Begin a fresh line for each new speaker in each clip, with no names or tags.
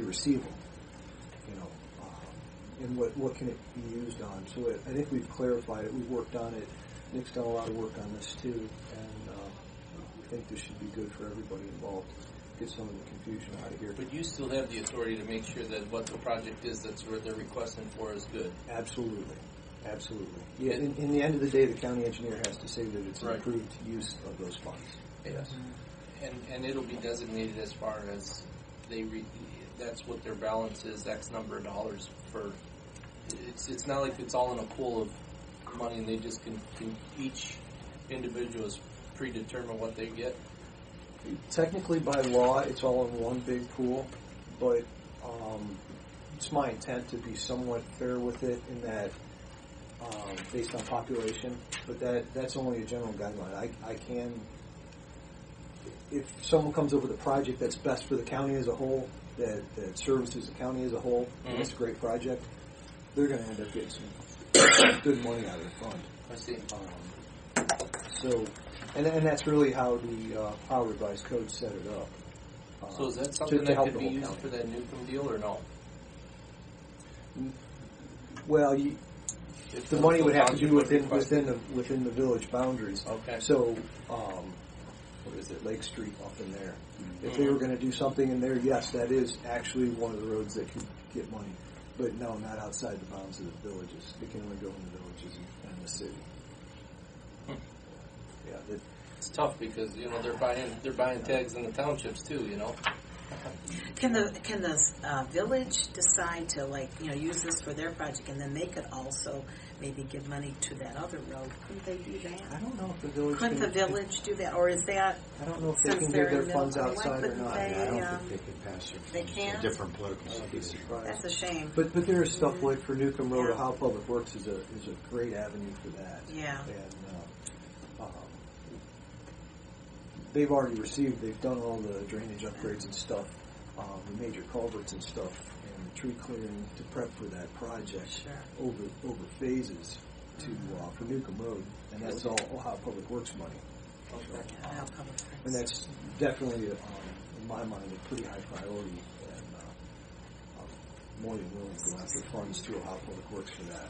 be receiving, you know, um, and what, what can it be used on? So it, I think we've clarified it, we've worked on it, Nick's done a lot of work on this too, and, um, I think this should be good for everybody involved, get some of the confusion out of here.
But you still have the authority to make sure that what the project is that's what they're requesting for is good.
Absolutely, absolutely. Yeah, in, in the end of the day, the county engineer has to say that it's an
Right.
approved use of those funds. Yes.
And, and it'll be designated as far as they re, that's what their balance is, X number of dollars for, it's, it's not like it's all in a pool of money and they just can, can each individual is predetermined what they get.
Technically, by law, it's all in one big pool, but um, it's my intent to be somewhat fair with it in that um, based on population, but that that's only a general guideline. I, I can, if someone comes up with a project that's best for the county as a whole, that, that services the county as a whole, and it's a great project, they're going to end up getting some good money out of the fund.
I see.
Um, So, and, and that's really how the, uh, how revised code set it up. Uh,
So is that
to-
something
to
that
help
could
the
be
whole
used
county.
for that Newcomb deal or no?
Well, you,
If
the money would have to
township
be within,
request
within the, within the village boundaries.
Okay.
So, um, what is it, Lake Street up in there? If
Mm-hmm.
they were gonna do something in there, yes, that is actually one of the roads that could get money. But no, not outside the bounds of the villages. It can only go in the villages and- and the city.
Hmm.
Yeah, that,
It's tough because, you know, they're buying, they're buying tags in the townships too, you know?
Can the, can the uh, village decide to like, you know, use this for their project and then they could also maybe give money to that other road? Couldn't they do
I
that?
don't know if the village.
Couldn't the
can-
village do that, or is that,
I don't know if they
Since
can
they're
give their
in
funds
Illinois,
outside or
couldn't
not.
they?
Yeah, I
I-
Yeah.
don't think they can pass it.
They can't?
Different political
I'd be
subdivision.
surprised.
that's a shame.
But, but there is stuff like for Newcomb Road,
Yeah.
how Public Works is a, is a great avenue for that.
Yeah.
And, uh, um, they've already received, they've done all the drainage upgrades and stuff, um, the major culverts and stuff, and the tree clearing to prep for that project
Sure.
over, over phases to, uh, for Newcomb Road, and that's all Ohio Public Works money.
Okay.
Yeah, I'll probably-
And that's definitely, um, in my mind, a pretty high priority, and uh, I'm more than willing to go after funds to Ohio Public Works for that.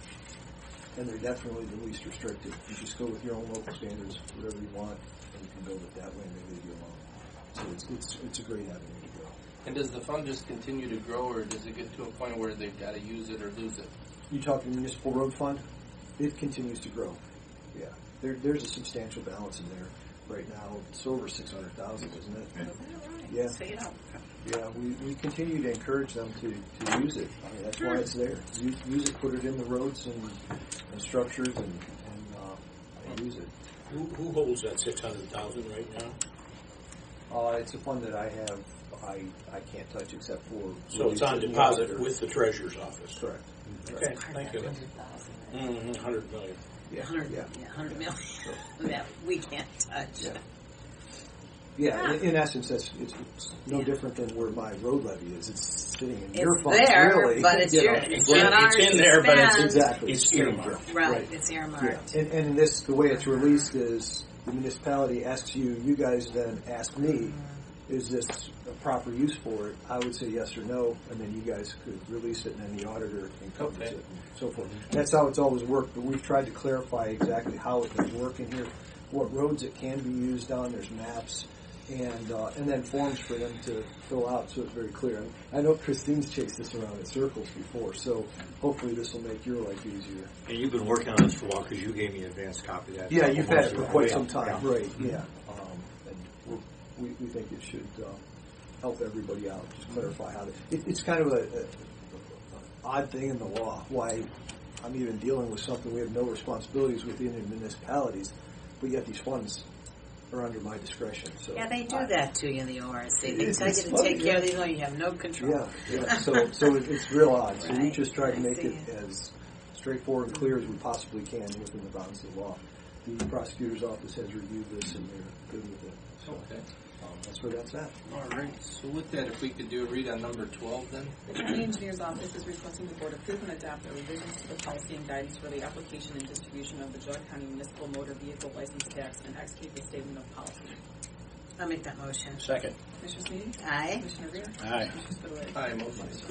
And they're definitely the least restrictive. You just go with your own local standards, whatever you want, and you can build it that way, and they leave you alone. So it's, it's, it's a great avenue to go.
And does the fund just continue to grow, or does it get to a point where they've got to use it or lose it?
You talking municipal road fund? It continues to grow. Yeah, there, there's a substantial balance in there right now. It's over six hundred thousand, isn't it? Yeah.
So you don't,
Yeah, we, we continue to encourage them to, to use it. I mean, that's why it's there. Use, use it, put it in the roads and, and structures and, and, uh, and use it.
Who, who holds that six hundred thousand right now?
Uh, it's a fund that I have, I, I can't touch except for.
So it's
release
on
of the
deposit
auditor.
with the treasurer's office.
Correct.
Okay, thank you.
Hundred thousand.
Mm-hmm, hundred million.
Yeah,
Hundred,
yeah.
yeah, hundred million, that we can't touch.
Yeah. Yeah, in, in essence, that's, it's, it's no
Ah. Yeah.
different than where my road levy is. It's sitting in your
It's
funds, really.
there, but it's
you
your,
know.
it's
Well,
not
it's
ours to
in there, but it's
spend.
Exactly.
It's earmarked.
Right, it's
Yeah,
earmarked.
and, and in this, the way it's released is the municipality asks you, you guys then ask me, is this a proper use for it? I would say yes or no, and then you guys could release it, and then the auditor encumbers
Okay.
it, and so forth. That's how it's always worked, but we've tried to clarify exactly how it does work in here, what roads it can be used on, there's maps, and, uh, and then forms for them to fill out, so it's very clear. And I know Christine's chased this around in circles before, so hopefully this will make your life easier.
And you've been working on this for a while because you gave me an advanced copy of that.
Yeah, you've had it for
Yeah,
quite some time,
yeah.
right, yeah. Um, and we're- we, we think it should, uh, help everybody out, just clarify how, to- it, it's kind of a, a a odd thing in the law, why I'm even dealing with something, we have no responsibilities within the municipalities, but yet these funds are under my discretion, so.
Yeah, they do
I-
that to you in the ORC. They
It's-
tell you
it's
to
funny,
take care of
yeah.
these, and you have no control.
Yeah, yeah, so, so it- it's real odd, so we
Right,
just try to
I
make it
see.
as straightforward and clear as we possibly can within the bounds of the law. The prosecutor's office has reviewed this and they're good with it, so,
Okay.
um, that's where that's at.
All right. So with that, if we could do a read on number 12 then?
The county engineer's office is requesting the board approve and adopt the revisions to the policy and guidance for the application and distribution of the Jug County Municipal Motor Vehicle License Tax and execute the statement of policy.
I'll make that motion.
Second.
Commissioner Sweeney?
Aye.
Commissioner Rea?
Aye.
Commissioner Spudler?
Aye, motion is